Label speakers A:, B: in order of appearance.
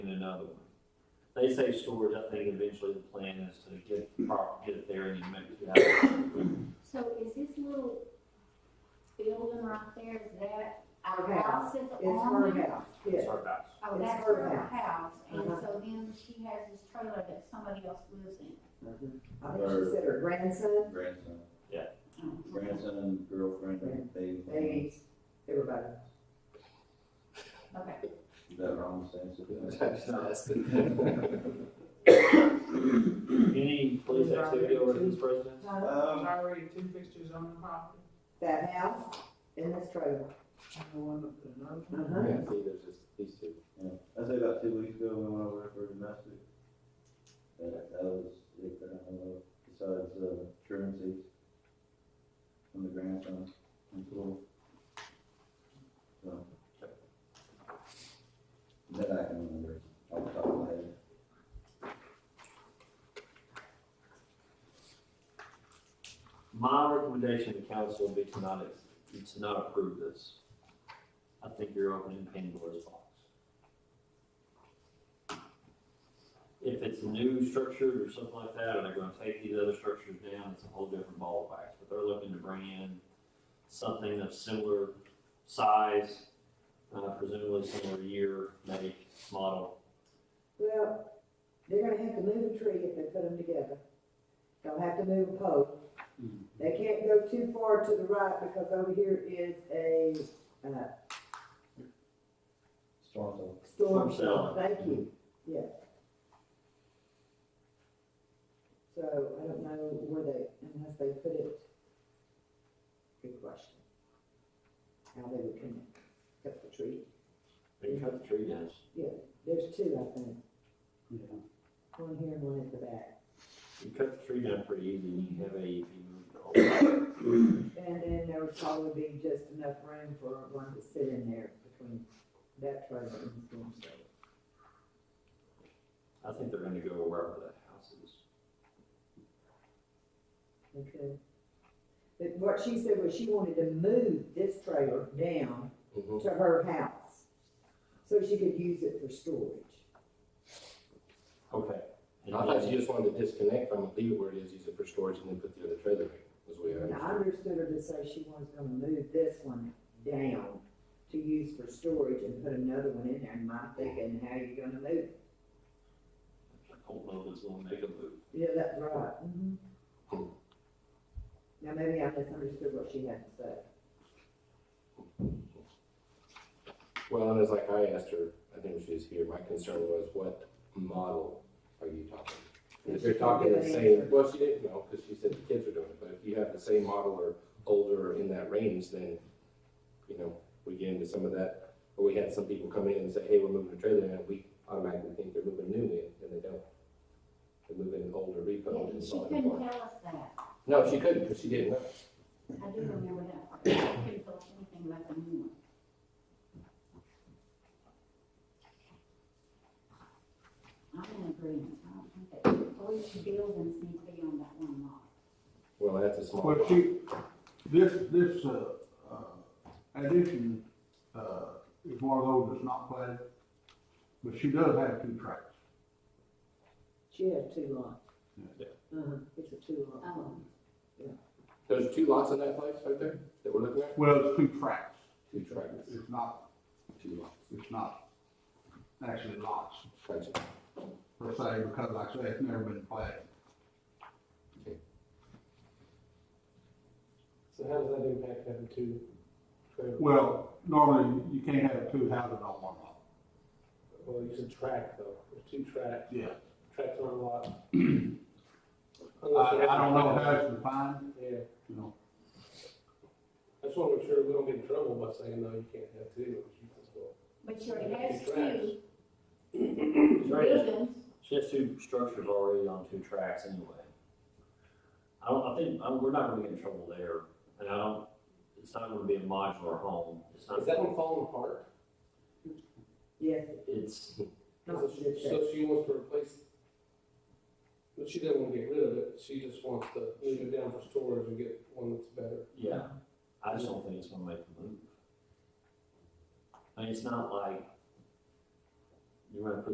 A: another one. They say storage, I think eventually the plan is to get, the prop- get it there and you make it out.
B: So is this little building right there, is that our
C: Our house.
B: house is
C: It's
B: on
C: her
B: it?
C: house,
A: It's
C: yes.
A: our house.
B: Oh,
C: It's
B: that's
C: her
B: her
C: house.
B: house, and
C: Uh-huh.
B: so then she has this trailer that somebody else lives in.
C: I think she said her grandson,
D: grandson,
B: Oh,
D: grandson and girlfriend and baby.
C: they, everybody.
B: Okay,
D: Is that wrong, Sam?
A: That's nice. Any police activity over at this residence?
D: Um,
E: There's already two fixtures on the property,
C: That house and this trailer.
E: and the one up there, another one.
F: Mm-hmm.
C: Uh-huh.
A: see, there's just these two.
D: Yeah, I'd say about two weeks ago, we went over there for domestic. That, that was, it, uh, besides, uh, currency. From the grandson, and cool. So. That I can remember, off the top of my head.
A: My recommendation to council would be to not, ex- to not approve this. I think you're opening Pandora's box. If it's a new structure or something like that, and they're gonna take these other structures down, it's a whole different ball of wax. But they're looking to bring in something of similar size, uh, presumably similar year, make, model.
C: Well, they're gonna have to move a tree if they put them together. They'll have to move a pole. They can't go too far to the right because over here is a uh,
D: Storm though.
C: storm
A: Storm
C: shelter.
A: shelter.
C: Thank you, yeah. So I don't know where they, unless they put it. Good question. How they would connect, cut the tree.
A: They can cut the tree down.
C: There's two, I think.
A: Yeah.
C: One here and one at the back.
A: You cut the tree down pretty easy, and you have E AEP move the whole.
C: And then there would probably be just enough room for one to sit in there between that trailer and the storm shelter.
A: I think they're gonna go wherever that house is.
C: Okay. But what she said was she wanted to move this trailer down to her house, so she could use it for storage.
A: Okay.
F: I thought you just wanted to disconnect from it, leave it where it is, use it for storage, and then put the other trailer in, is what I
C: And I
F: understood.
C: understood her to say she was gonna move this one down to use for storage and put another one in there, and my thinking, how you gonna move it?
A: I don't know if it's gonna make a move.
C: Yeah, that's right. Mhm. Now, maybe I misunderstood what she had to say.
F: Well, and it's like I asked her, I think she was here, my concern was what model are you talking? And If you're talking the same, well, she didn't know, because she said the kids are doing it, but if you have the same model or older or in that range, then, you know, we get into some of that, or we had some people come in and say, hey, we're moving a trailer, and we automatically think they're moving new in, and they don't. They're moving an older repo.
B: yeah,
F: and
B: she
F: all that.
B: couldn't tell us that,
F: No, she couldn't, because she didn't know.
B: I do remember that, part. she couldn't tell us anything about the new one. I'm in agreement, I don't think that, all these buildings need to be on that one lot.
F: Well, that's a small.
G: Well, she, this, this, uh, uh, addition, uh, is one of those that's not platted, but she does have two tracks.
C: She had two lots.
A: Yeah.
C: Uh-huh, it's a two lot.
B: Oh,
F: There's two lots in that place right there that we're looking at?
G: Well, it's two tracks,
F: Two triangles,
G: it's not,
F: two lots.
G: it's not actually lots
F: Gotcha.
G: per se, because like I say, it's never been platted.
H: So how does that impact having two trailers?
G: Well, normally you can't have two houses on one lot.
H: Well, you said track though, there's two tracks,
G: Yeah.
H: tracks on a lot.
G: I, I don't know how it's defined,
H: Yeah,
G: you know,
H: I just wanna make sure we don't get in trouble by saying, no, you can't have two. You can go-
B: but she already has
H: Two tracks.
B: two
A: She already has-
B: buildings.
A: she has two structures already on two tracks anyway. I don't, I think, I, we're not gonna get in trouble there, and I don't, it's not gonna be a modular home, it's not,
H: Is that one falling apart?
C: Yes,
A: it's,
C: not
H: So she- So she wants to replace, but she doesn't wanna get rid of it, she just wants to move it down for storage and get one that's better.
A: yeah, I just don't think it's gonna make a move. I mean, it's not like you're gonna put